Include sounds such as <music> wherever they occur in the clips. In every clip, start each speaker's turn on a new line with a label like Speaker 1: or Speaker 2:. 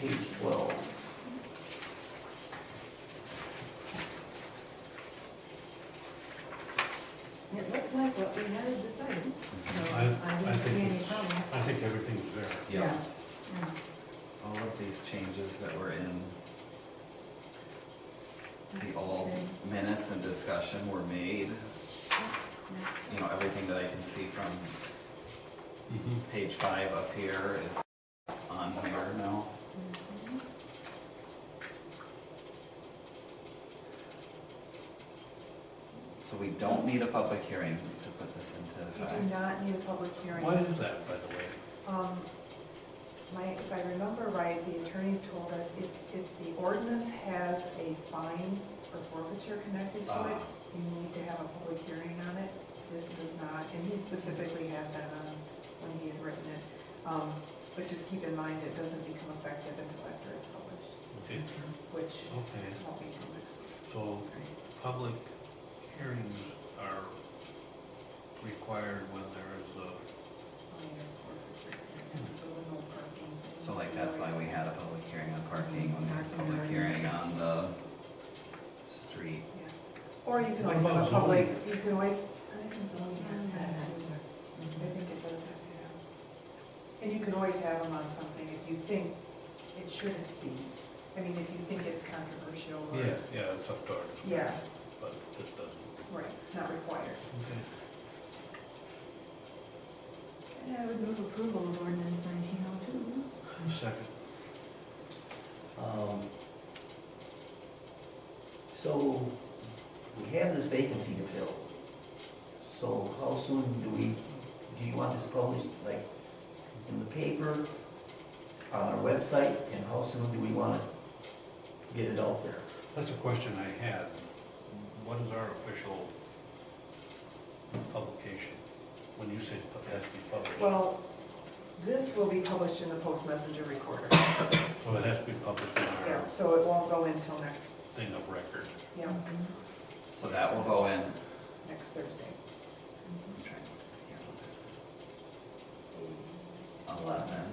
Speaker 1: page twelve.
Speaker 2: It looked like what we had decided, so I
Speaker 3: I- I
Speaker 2: didn't
Speaker 3: think
Speaker 2: see any
Speaker 3: it's-
Speaker 2: problem.
Speaker 3: I think everything's there.
Speaker 1: Yeah,
Speaker 2: yeah.
Speaker 1: all of these changes that were in the old
Speaker 2: Okay.
Speaker 1: minutes and discussion were made,
Speaker 2: Yeah.
Speaker 1: you know, everything that I can see from page five up here is on here now.
Speaker 2: Mhm.
Speaker 1: So we don't need a public hearing to put this into
Speaker 2: You do
Speaker 1: effect.
Speaker 2: not need a public hearing.
Speaker 3: Why is that, by the way?
Speaker 2: Um, My, if I remember right, the attorneys told us if, if the ordinance has a fine or forfeiture connected to it,
Speaker 3: Ah.
Speaker 2: you need to have a public hearing on it. This does not, and he specifically had that on when he had written it. Um, But just keep in mind, it doesn't become effective until after it's published,
Speaker 3: Okay,
Speaker 2: which
Speaker 3: okay,
Speaker 2: won't be till next week.
Speaker 3: so public hearings are required when there is a,
Speaker 2: Fine or forfeiture connected, So the no parking. thing.
Speaker 1: So like, that's why we had a public hearing on parking, when we had a public
Speaker 2: Parking areas.
Speaker 1: hearing on the street.
Speaker 2: Yeah. Or you can
Speaker 3: What
Speaker 2: always have
Speaker 3: about
Speaker 2: a public,
Speaker 3: zoning?
Speaker 2: you can always, I think there's zoning has to have, I
Speaker 4: Mhm.
Speaker 2: think it does have to have. And you can always have them on something if you think it shouldn't be. I mean, if you think it's controversial or.
Speaker 3: yeah, yeah, it's up to our
Speaker 2: Yeah,
Speaker 3: discretion, but this doesn't.
Speaker 2: right, it's not required.
Speaker 3: Okay.
Speaker 4: And I would move approval of ordinance nineteen oh two.
Speaker 3: Second.
Speaker 5: Um, So we have this vacancy to fill. So how soon do we, do you want this published, like, in the paper, on our website, and how soon do we want to get it out there?
Speaker 3: That's a question I had. What is our official publication? When you said it has to be published,
Speaker 2: Well, this will be published in the Post Messenger Recorder.
Speaker 3: so it has to be published in our
Speaker 2: Yeah, so it won't go in till next,
Speaker 3: thing of record.
Speaker 2: yeah,
Speaker 1: So that will go in.
Speaker 2: next Thursday.
Speaker 1: I'm trying to look at the calendar. Eleven.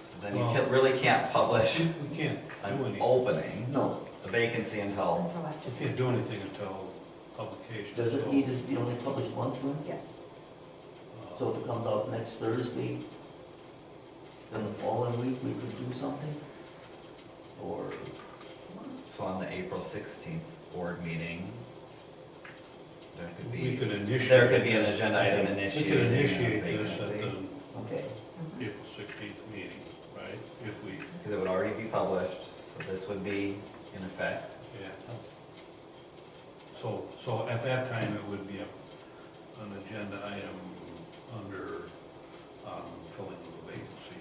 Speaker 1: So then you can, really can't publish
Speaker 3: We can't do
Speaker 1: an
Speaker 3: anything,
Speaker 1: opening,
Speaker 5: No,
Speaker 1: the vacancy until,
Speaker 4: Until after.
Speaker 3: we can't do anything until publication.
Speaker 5: does it
Speaker 3: so,
Speaker 5: need to be only published once then?
Speaker 2: Yes,
Speaker 3: uh,
Speaker 5: So if it comes out next Thursday, then the following week, we could do something? Or,
Speaker 1: so on the April sixteenth board meeting. There could
Speaker 3: We
Speaker 1: be,
Speaker 3: could initiate.
Speaker 1: there could be an
Speaker 3: this.
Speaker 1: agenda item
Speaker 3: We
Speaker 1: initiated.
Speaker 3: could
Speaker 1: in a
Speaker 3: initiate this at the
Speaker 1: vacancy,
Speaker 5: okay,
Speaker 4: Mhm.
Speaker 3: April sixteenth meeting, right? If we,
Speaker 1: Because it would already be published, so this would be in effect.
Speaker 3: yeah. So, so at that time, it would be a, an agenda item under, um, filling of the vacancy.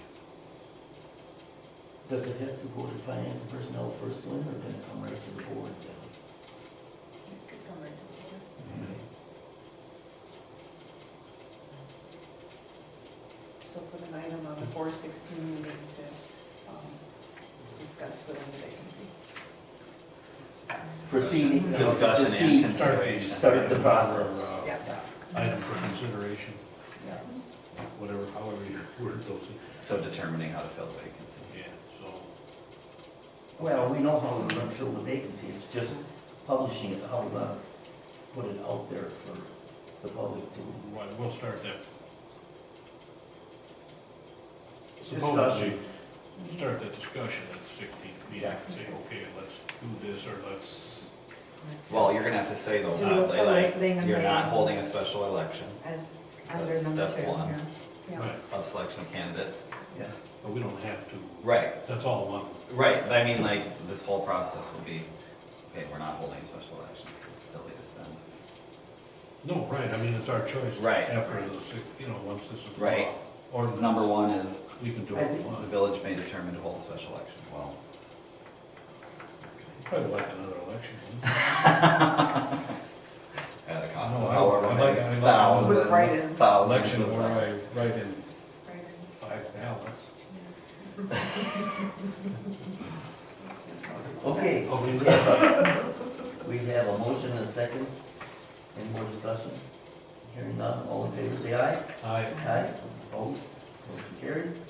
Speaker 5: does it have to go to finance and personnel first, Lynn, or can it come right to the board then?
Speaker 2: it could come right to the board.
Speaker 1: Mm-hmm.
Speaker 2: So put an item on the four sixteen meeting to um, discuss filling the vacancy.
Speaker 5: Proceeding.
Speaker 1: Discussion and
Speaker 5: Proceed.
Speaker 1: consideration.
Speaker 5: Start the process.
Speaker 3: Or, uh,
Speaker 2: Yeah.
Speaker 3: Item for consideration,
Speaker 5: Yeah.
Speaker 3: whatever, however you word those,
Speaker 1: So determining how to fill the vacancy.
Speaker 3: yeah, so.
Speaker 5: Well, we know how we're gonna fill the vacancy, it's just publishing it, how we're gonna put it out there for the public to.
Speaker 3: Right, we'll start that. Supposedly,
Speaker 5: Discussion.
Speaker 3: we'll start that discussion at the sixteenth meeting,
Speaker 5: Yeah.
Speaker 3: and say, okay, let's do this, or let's,
Speaker 4: Let's-
Speaker 1: Well, you're gonna have to say though,
Speaker 4: Do
Speaker 1: not,
Speaker 4: a soliciting
Speaker 1: like,
Speaker 4: of
Speaker 1: you're not
Speaker 4: names.
Speaker 1: holding a special election
Speaker 4: As
Speaker 1: That's
Speaker 4: under number two.
Speaker 1: step one.
Speaker 4: yeah.
Speaker 2: Yeah.
Speaker 3: right,
Speaker 1: of selection of candidates.
Speaker 5: Yeah.
Speaker 3: but we don't have to,
Speaker 1: Right,
Speaker 3: that's all one.
Speaker 1: right, but I mean, like, this whole process will be, okay, we're not holding a special election, it's silly to spend.
Speaker 3: No, right, I mean, it's our choice.
Speaker 1: Right.
Speaker 3: After the six, you know, once this is.
Speaker 1: Right.
Speaker 3: Or
Speaker 1: Because number one is,
Speaker 3: We can do
Speaker 5: I
Speaker 3: what we
Speaker 5: think-
Speaker 1: the
Speaker 3: want,
Speaker 1: village may determine to hold a special election, well. it's not gonna-
Speaker 3: probably like another election.
Speaker 1: At a cost
Speaker 3: No,
Speaker 1: of
Speaker 3: I-
Speaker 1: however
Speaker 3: I
Speaker 1: many
Speaker 3: like- I like-
Speaker 2: With write-ins.
Speaker 1: thousands, thousands
Speaker 3: Election
Speaker 1: of.
Speaker 3: where I write
Speaker 2: Right,
Speaker 3: in
Speaker 2: it's-
Speaker 3: <laughs> five ballots.
Speaker 5: Okay,
Speaker 1: Oh,
Speaker 3: Okay.
Speaker 5: we have a motion and a second, any more discussion? Hearing none, all in favor, say aye.
Speaker 3: I,
Speaker 5: Aye, opposed, motion carried.